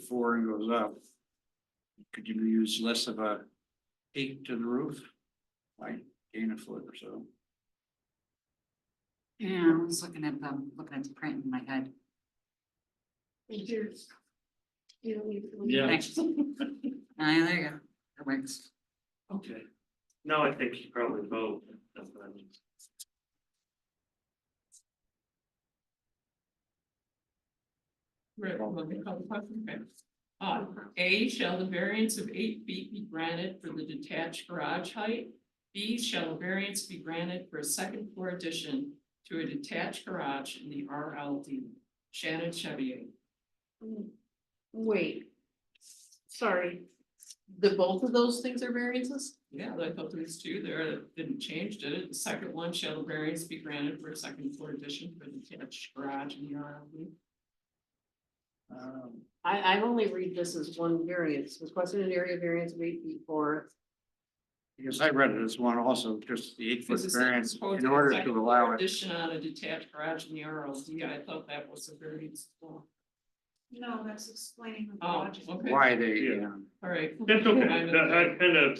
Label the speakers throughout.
Speaker 1: four and goes up. Could you use less of a eight to the roof? Like gain a foot or so.
Speaker 2: Yeah, I was looking at the, looking at the print in my head.
Speaker 3: Here's. You don't need to.
Speaker 1: Yeah.
Speaker 2: Thanks. Ah, there you go. That works.
Speaker 1: Okay.
Speaker 4: No, I think you probably vote. That's what I mean.
Speaker 5: Right, well, let me call the question, okay. Uh, A, shall the variance of eight feet be granted for the detached garage height? B, shall a variance be granted for a second floor addition to a detached garage in the RLD? Shannon Chevier.
Speaker 3: Wait. Sorry. The both of those things are variances?
Speaker 5: Yeah, I thought there was two there, that didn't change, did it? The second one, shall a variance be granted for a second floor addition for the detached garage in the RLD?
Speaker 1: Um,
Speaker 3: I, I only read this as one variance, requested an area variance of eight feet or
Speaker 1: Because I read it as one also, just the eight foot
Speaker 5: Because it's not
Speaker 1: variance
Speaker 5: supposed
Speaker 1: in order
Speaker 5: second
Speaker 1: to
Speaker 5: floor
Speaker 1: allow it.
Speaker 5: Addition on a detached garage in the RLD, I thought that was a variance. as well.
Speaker 6: No, that's explaining the
Speaker 5: Oh,
Speaker 6: logic.
Speaker 5: okay, all
Speaker 1: Why they,
Speaker 4: Yeah.
Speaker 1: um,
Speaker 5: right.
Speaker 4: That's okay, That- I kind of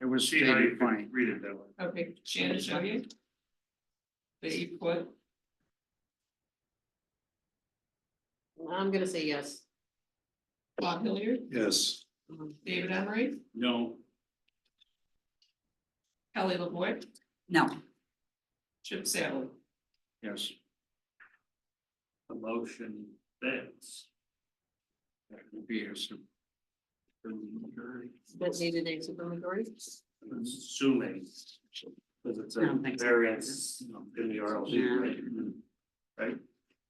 Speaker 1: it was
Speaker 4: see how you
Speaker 1: stated
Speaker 4: can
Speaker 1: funny.
Speaker 4: read it that way.
Speaker 5: Okay, Shannon Chauvier. The eight foot,
Speaker 3: I'm gonna say yes.
Speaker 5: Bob Hilliard,
Speaker 1: Yes.
Speaker 5: David Emery,
Speaker 1: No.
Speaker 5: Kelly LaVoy,
Speaker 2: No,
Speaker 5: Chip Sally.
Speaker 1: Yes.
Speaker 4: The motion fails.
Speaker 1: That would be a sup- preliminary.
Speaker 3: That needed a supermajority?
Speaker 4: I'm Assuming. Because it's
Speaker 2: I
Speaker 4: a
Speaker 2: don't think so.
Speaker 4: variance in the RLD, right? Mm-hmm. Right?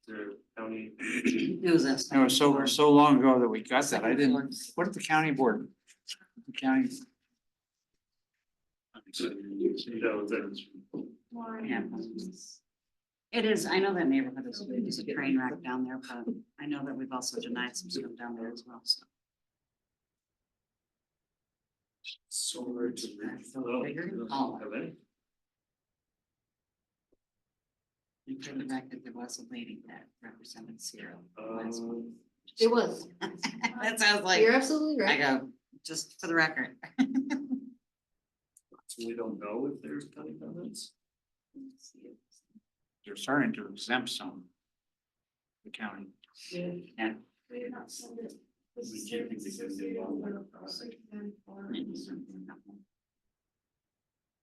Speaker 4: The county.
Speaker 2: it was us.
Speaker 1: No, so we're so long ago that we got that. I
Speaker 2: Second
Speaker 1: didn't,
Speaker 2: floor.
Speaker 1: what did the county board? The county.
Speaker 4: No, that's.
Speaker 2: Yeah. It is, I know that neighborhood is, is a train wreck down there, but I know that we've also denied some stuff down there as well, so.
Speaker 4: So we're to. Hello. Have any?
Speaker 2: And for the fact that there was a lady that represented Sierra. last month.
Speaker 4: Um,
Speaker 3: It was.
Speaker 2: That sounds like,
Speaker 3: You're absolutely
Speaker 2: I
Speaker 3: right.
Speaker 2: go, just for the record.
Speaker 4: so we don't know if there's county comments.
Speaker 1: They're starting to exempt some. The county.
Speaker 6: They're not sending it. This
Speaker 4: We
Speaker 6: is
Speaker 4: can't think
Speaker 6: just
Speaker 4: they can
Speaker 6: associated
Speaker 4: do all
Speaker 6: with
Speaker 4: that.
Speaker 6: the site plan for-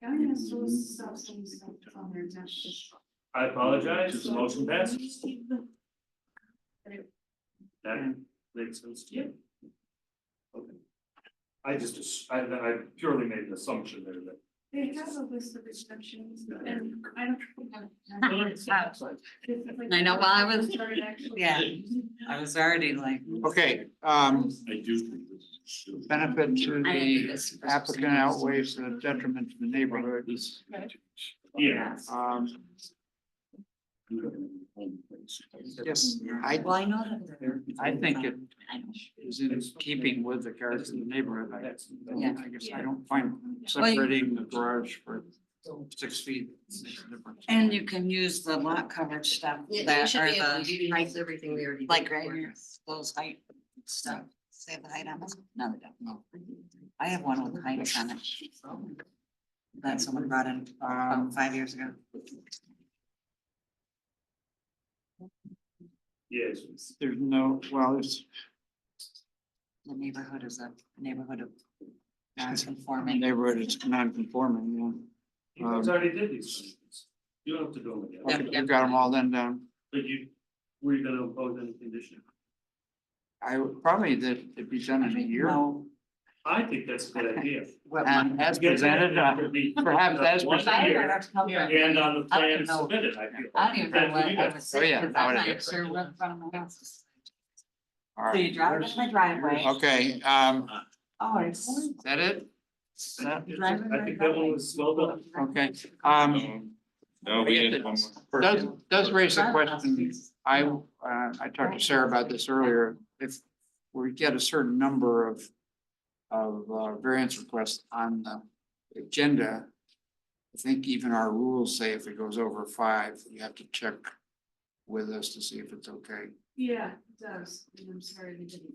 Speaker 6: County has to list some stuff on their taxes.
Speaker 4: I apologize, the motion passes. That makes sense to you? Okay. I just, ass- I, I purely made an assumption there that.
Speaker 6: They have a list of exceptions and I don't.
Speaker 2: I know, well, I was-
Speaker 6: Started actually-
Speaker 2: Yeah, I was already like.
Speaker 1: Okay, um,
Speaker 4: I do think this is.
Speaker 1: benefit to
Speaker 2: I
Speaker 1: the
Speaker 2: think this-
Speaker 1: applicant outweighs the detriment to the neighborhood.
Speaker 4: Yeah.
Speaker 1: Um, yes, I,
Speaker 2: Well, I know that. they're-
Speaker 1: I think it
Speaker 2: I know.
Speaker 1: is in keeping with the character of the neighborhood. I,
Speaker 2: Yeah.
Speaker 1: I guess I don't find separating the garage for six feet. makes a difference.
Speaker 2: And you can use the lot coverage stuff
Speaker 3: Yeah, you
Speaker 2: that
Speaker 3: should
Speaker 2: are
Speaker 3: be able to
Speaker 2: the,
Speaker 3: utilize everything we already. did
Speaker 2: like, right
Speaker 3: before.
Speaker 2: here, those height stuff. Say the height on this? No, they don't. I have one with heights on it. That someone brought in
Speaker 1: Um,
Speaker 2: about five years ago.
Speaker 4: Yes.
Speaker 1: There's no, well, it's,
Speaker 2: The neighborhood is a neighborhood of non-conforming.
Speaker 1: neighborhood is non-conforming,
Speaker 4: You guys already did these things. You don't have to do them
Speaker 1: yeah.
Speaker 4: again.
Speaker 1: Um, Okay, I've got them all then uh, down.
Speaker 4: But you, were you gonna impose any condition?
Speaker 1: I would probably that it'd be done in a year.
Speaker 2: No,
Speaker 4: I think that's a good idea.
Speaker 2: what my-
Speaker 1: Um, as presented, uh, perhaps as
Speaker 4: Once
Speaker 1: presented.
Speaker 4: a
Speaker 2: I don't
Speaker 4: year,
Speaker 2: know.
Speaker 4: And on the
Speaker 2: I don't
Speaker 4: plan
Speaker 2: know.
Speaker 4: submitted, I feel.
Speaker 2: I don't even know
Speaker 4: That's
Speaker 2: what
Speaker 4: you
Speaker 2: I
Speaker 4: guys-
Speaker 2: was
Speaker 1: Oh,
Speaker 2: saying,
Speaker 1: yeah,
Speaker 2: because
Speaker 1: I
Speaker 2: I'm
Speaker 1: would've-
Speaker 2: not sure what in front of my house. is.
Speaker 1: All
Speaker 2: So you
Speaker 1: right.
Speaker 2: drive into my driveway.
Speaker 1: Okay, um,
Speaker 2: Oh, it's.
Speaker 1: is that it? Is that-
Speaker 2: drive in
Speaker 4: I
Speaker 2: my
Speaker 4: think that one was well done.
Speaker 2: driveway.
Speaker 1: Okay, um.
Speaker 7: No,
Speaker 1: I
Speaker 7: we
Speaker 1: guess
Speaker 7: did
Speaker 1: it
Speaker 7: one more.
Speaker 1: Does, does raise a
Speaker 2: Drive past
Speaker 1: question.
Speaker 2: these.
Speaker 1: I, uh, I talked to Sarah about this earlier. If we get a certain number of, of uh, variance requests on the agenda, I think even our rules say if it goes over five, you have to check with us to see if it's okay.
Speaker 6: Yeah, it does. And I'm sorry they didn't